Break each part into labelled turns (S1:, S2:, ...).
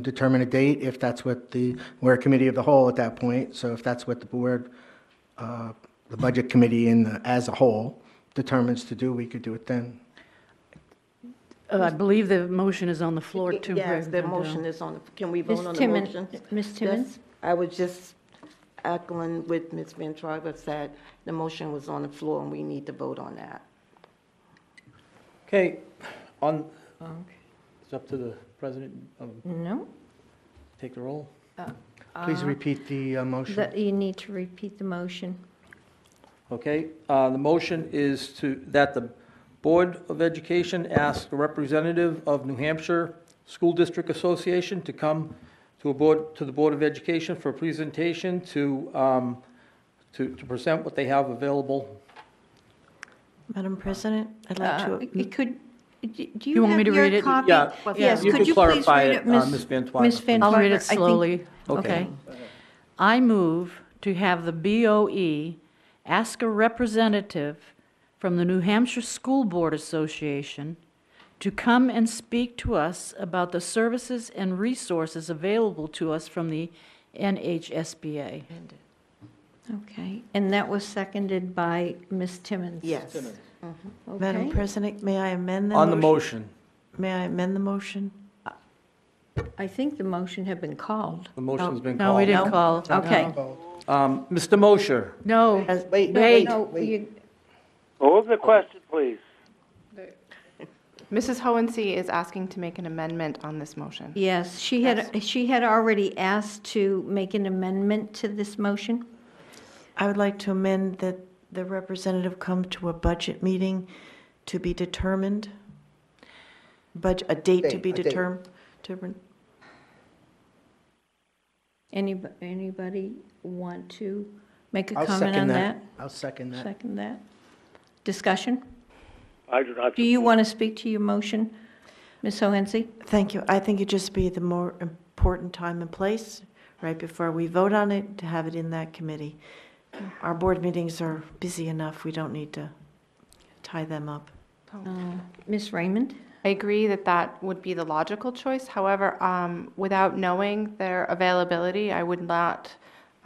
S1: determine a date if that's what the, we're a committee of the whole at that point, so if that's what the board, uh, the budget committee in, the- as a whole determines to do, we could do it then.
S2: Uh, I believe the motion is on the floor to.
S3: Yes, the
S2: vote, uh,
S3: motion is on, the can we
S4: Ms.
S3: vote on the
S4: Timmons,
S5: uh,
S3: motion?
S4: Ms.
S3: Yes,
S4: Timmons,
S3: I was just echoing with Ms. Van Twyver said, the motion was on the floor and we need to vote on that.
S6: Okay, on, it's up to the president, um,
S4: no?
S6: take the roll.
S1: Please repeat the uh, motion.
S4: That You need to repeat the motion.
S6: Okay, uh, the motion is to, that the Board of Education ask a representative of New Hampshire School District Association to come to a board, to the Board of Education for a presentation to, um, to, to present what they have available.
S5: Madam President, I'd
S4: Uh,
S5: like to,
S4: It could, do do
S2: You
S4: you
S2: want me
S4: have
S2: to read
S4: your
S2: it?
S4: copy?
S6: Yeah,
S4: Yes,
S6: you
S4: could
S6: could
S4: you please
S6: clarify
S4: read
S6: it,
S4: it,
S6: uh,
S4: Ms.
S6: Ms. Van Twyver.
S4: Ms. Van
S2: I'll read
S4: Twyver, I
S2: it
S4: think-
S2: slowly,
S6: Okay.
S2: okay? I move to have the BOE ask a representative from the New Hampshire School Board Association to come and speak to us about the services and resources available to us from the NHSBA.
S4: Okay, and that was seconded by Ms. Timmons?
S3: Yes.
S5: Madam
S4: Okay,
S5: President, may I amend the?
S6: On the motion,
S5: May I amend the motion?
S4: I think the motion had been called.
S6: the motion's been called.
S2: No, we didn't call.
S4: Okay.
S6: Um, Mr. Mosher,
S2: No.
S5: As-
S1: Wait,
S2: Wait.
S4: No, you-
S7: Move the question, please.
S8: Mrs. Hohensee is asking to make an amendment on this motion.
S4: Yes, she had, she had already asked to make an amendment to this motion.
S5: I would like to amend that the representative come to a budget meeting to be determined. Budget, a date to
S1: Date,
S5: be
S1: a date.
S5: determined, determined.
S4: Anyb- Anybody want to make a
S1: I'll
S4: comment
S1: second
S4: on that?
S1: I'll second that.
S4: Second that. Discussion?
S7: I do not.
S4: Do you want to speak to your motion, Ms. Hohensee?
S5: Thank you. I think it'd just be the more important time and place, right before we vote on it, to have it in that committee. Our board meetings are busy enough. We don't need to tie them up.
S4: Uh, Ms. Raymond?
S8: I agree that that would be the logical choice. However, um, without knowing their availability, I would not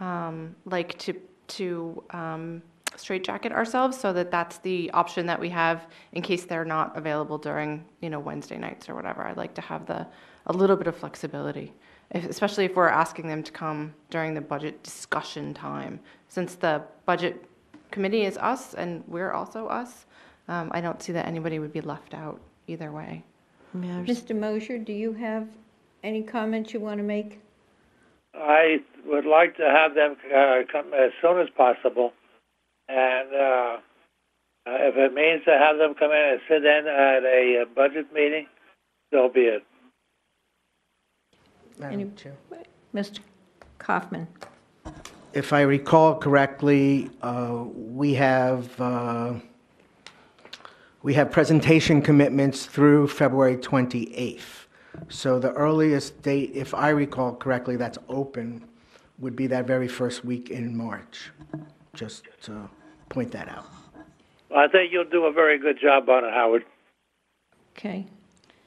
S8: um, like to, to um, straitjacket ourselves so that that's the option that we have in case they're not available during, you know, Wednesday nights or whatever. I'd like to have the, a little bit of flexibility, if- especially if we're asking them to come during the budget discussion time. Since the budget committee is us and we're also us, um, I don't see that anybody would be left out either way.
S5: Yeah, there's-
S4: Mr. Mosher, do you have any comments you want to make?
S7: I would like to have them uh, come as soon as possible, and uh, uh, if it means to have them come in and sit in at a uh, budget meeting, so be it.
S1: Madam Chair.
S4: Mr. Kaufman?
S1: If I recall correctly, uh, we have, uh, we have presentation commitments through February 28th. So the earliest date, if I recall correctly, that's open, would be that very first week in March. Just to point that out.
S7: I think you'll do a very good job on it, Howard.
S4: Okay.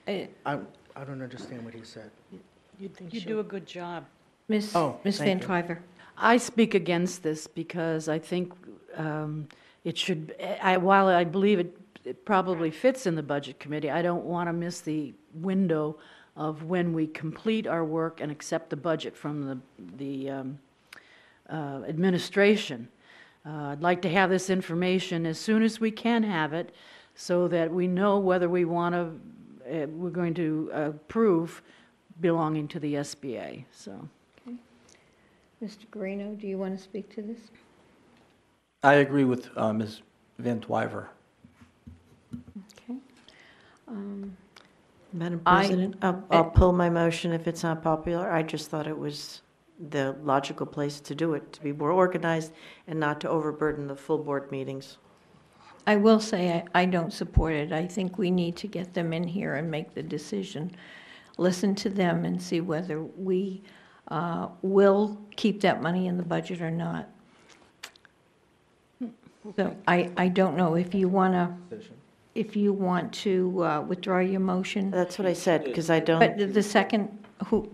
S4: Uh,
S1: I I don't understand what he said.
S2: You do a good job.
S4: Ms.
S1: Oh,
S4: Ms. Van
S1: thank
S4: Twyver?
S2: I speak against this because I think um, it should, I, while I believe it, it probably fits in the Budget Committee, I don't want to miss the window of when we complete our work and accept the budget from the, the um, uh, administration. Uh, I'd like to have this information as soon as we can have it, so that we know whether we want to, we're going to approve belonging to the SBA, so.
S4: Mr. Guarino, do you want to speak to this?
S6: I agree with uh, Ms. Van Twyver.
S4: Okay. Um,
S5: Madam
S4: I-
S5: President, I'll I'll pull my motion if it's not popular. I just thought it was the logical place to do it, to be more organized and not to overburden the full board meetings.
S4: I will say, I I don't support it. I think we need to get them in here and make the decision. Listen to them and see whether we uh, will keep that money in the budget or not. So I, I don't know if you want to, if you want to uh, withdraw your motion,
S5: That's what I said, because I don't.
S4: but the- the second, who,